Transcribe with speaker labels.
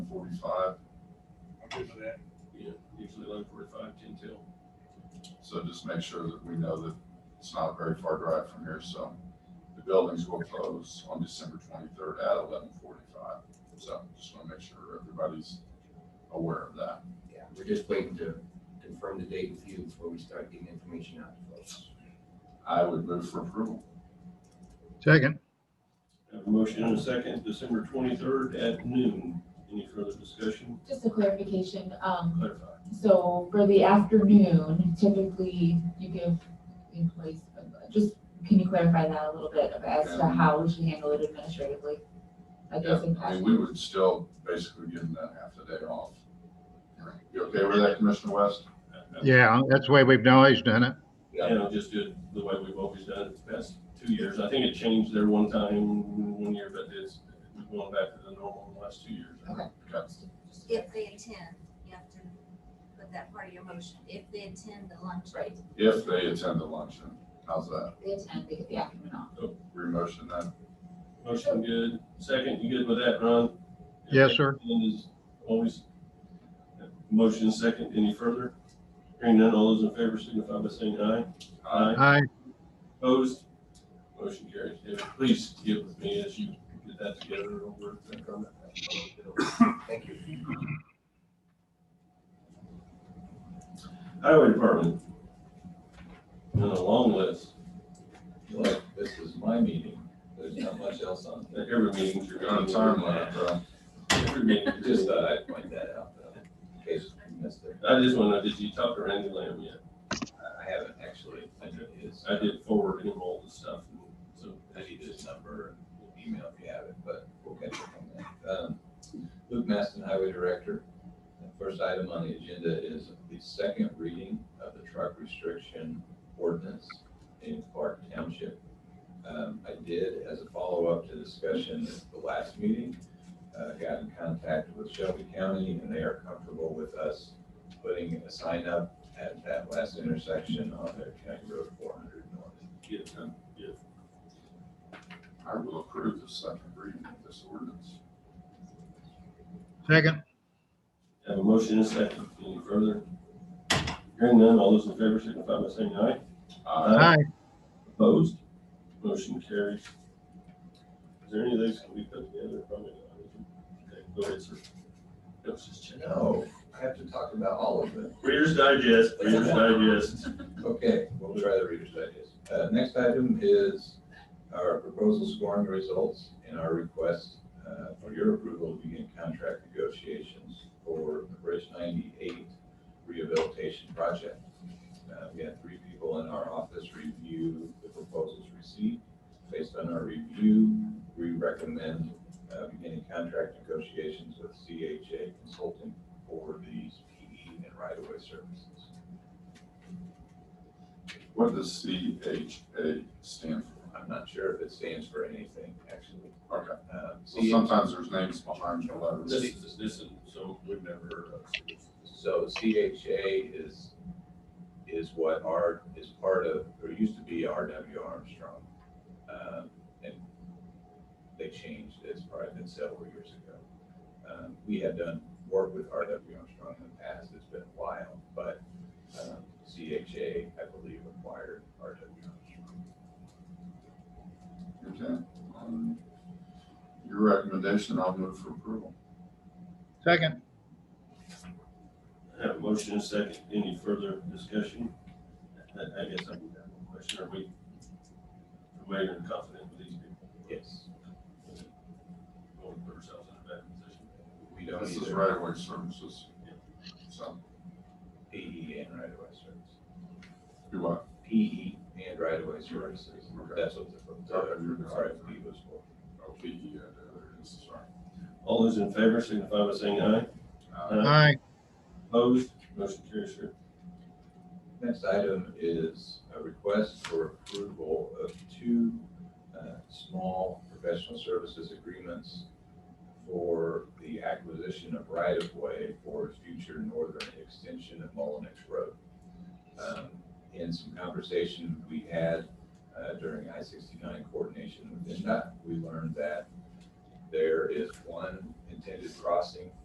Speaker 1: forty-five,
Speaker 2: I'm good with that.
Speaker 3: Yeah, usually eleven forty-five, ten till.
Speaker 1: so just make sure that we know that it's not a very far drive from here, so the buildings will close on December twenty-third at eleven forty-five. So just wanna make sure everybody's aware of that.
Speaker 4: Yeah, we're just waiting to confirm the date with you before we start getting information out to folks.
Speaker 1: I would move for approval.
Speaker 5: Second,
Speaker 3: Have a motion and a second, December twenty-third at noon. Any further discussion?
Speaker 6: Just a clarification, um,
Speaker 3: Clarify.
Speaker 6: so for the afternoon, typically you give employees, just, can you clarify that a little bit of as to
Speaker 1: Um,
Speaker 6: how we should handle it administratively? Like
Speaker 1: Yeah,
Speaker 6: those
Speaker 1: I
Speaker 6: in
Speaker 1: mean,
Speaker 6: passion?
Speaker 1: we would still basically give them that half a day off. You okay with that, Commissioner West?
Speaker 5: yeah, that's the way we've always done it.
Speaker 3: And I'll just do it the way we've always done it the past two years. I think it changed there one time, one year, but it's we've gone back to the normal in the last two years.
Speaker 6: Okay.
Speaker 1: Okay.
Speaker 7: If they attend, you have to put that part of your motion, if they attend the lunch.
Speaker 6: Right,
Speaker 1: If they attend the luncheon, how's that?
Speaker 6: they attend, they get the afternoon off.
Speaker 1: Remotion that?
Speaker 3: Motion good, second, you good with that, Ron?
Speaker 5: Yes, sir.
Speaker 3: And is always, motion second, any further? Hearing none, all those in favor signify by saying aye. Aye.
Speaker 5: Aye,
Speaker 3: Opposed? Motion carries. David, please get with me as you get that together over the comment.
Speaker 4: Thank you.
Speaker 3: Highway Department. On a long list,
Speaker 8: Look, this is my meeting. There's not much else on.
Speaker 3: At every meeting you're
Speaker 1: You're on
Speaker 3: going
Speaker 1: a
Speaker 3: to
Speaker 1: time limit, bro.
Speaker 3: Every meeting,
Speaker 8: Just thought I'd point that out though, in case we missed it.
Speaker 3: I just want to know, did you talk to Randy Lamb yet?
Speaker 8: I I haven't actually, I know it is.
Speaker 3: I did forward him all the stuff, so
Speaker 8: I need his number and email if you have it, but we'll catch up on that. Um, Luke Maston, Highway Director. The first item on the agenda is the second reading of the truck restriction ordinance in Clark Township. Um, I did, as a follow-up to discussion at the last meeting, uh, got in contact with Shelby County and they are comfortable with us putting a sign up at that last intersection on their county road four hundred north.
Speaker 3: get it done.
Speaker 1: I will approve the second reading of this ordinance.
Speaker 5: second,
Speaker 3: Have a motion and a second. Any further? Hearing none, all those in favor signify by saying aye.
Speaker 1: Aye.
Speaker 5: aye,
Speaker 3: Opposed? Motion carries. Is there any of these can we put together? Probably not. Okay, Go ahead, sir. Let's just check.
Speaker 8: No, I have to talk about all of it.
Speaker 3: Reader's Digest, Reader's Digest.
Speaker 8: Okay, we'll try the Reader's Digest. Uh, next item is our proposal scoring results and our request uh, for your approval to begin contract negotiations for the Bridge ninety-eight rehabilitation project. Uh, we had three people in our office review the proposals received. Based on our review, we recommend uh, beginning contract negotiations with CHA Consulting for these PE and right-of-way services.
Speaker 1: What does CHA stand for?
Speaker 8: I'm not sure if it stands for anything, actually.
Speaker 1: Okay,
Speaker 8: Um,
Speaker 1: so
Speaker 8: C-
Speaker 1: sometimes there's names behind the
Speaker 3: This
Speaker 1: letters.
Speaker 3: is, this is, so we've never heard of. so this-
Speaker 8: So CHA is, is what our, is part of, or used to be RW Armstrong. Um, And they changed, it's probably been several years ago. Um, We had done work with RW Armstrong in the past, it's been a while, but um, CHA, I believe, acquired RW Armstrong.
Speaker 1: Okay. um, Your recommendation, I'll move for approval.
Speaker 5: second,
Speaker 3: I Have a motion and a second. Any further discussion? I, I guess I can have one question. Are we, are we even confident with these people?
Speaker 8: Yes,
Speaker 3: Going to put ourselves in a bad position.
Speaker 8: we don't
Speaker 1: This is
Speaker 8: either
Speaker 1: right away services. So,
Speaker 8: PE and right-of-way services.
Speaker 1: do what?
Speaker 8: PE E and right-of-way services.
Speaker 1: Okay.
Speaker 8: That's what the, the
Speaker 1: Okay, you're right.
Speaker 8: RFP was for.
Speaker 1: Oh, PE, yeah, there it is, sorry.
Speaker 3: All those in favor signify by saying aye.
Speaker 1: Uh,
Speaker 5: aye,
Speaker 3: Opposed? Motion carries, sir.
Speaker 8: Next item is a request for approval of two uh, small professional services agreements for the acquisition of right-of-way for future northern extension of Mullenix Road. Um, In some conversation we had uh, during I-69 coordination with NDOT, we learned that there is one intended crossing